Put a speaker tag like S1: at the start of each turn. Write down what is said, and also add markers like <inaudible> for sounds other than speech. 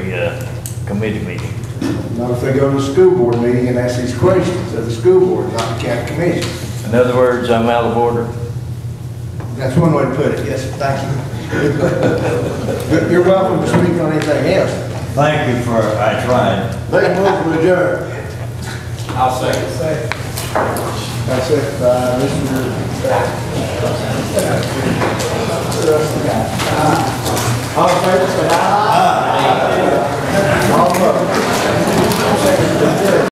S1: the uh, committee meeting.
S2: Not if they go to the school board meeting and ask these questions at the school board, not the county commission.
S1: In other words, I'm out of order.
S2: That's one way to put it, yes, thank you. But <laughs> You're welcome to speak on anything else.
S3: Thank you for, I tried.
S2: They move for adjourn.
S3: I'll second.
S2: That's it, uh, Mr. All in favor, say aye.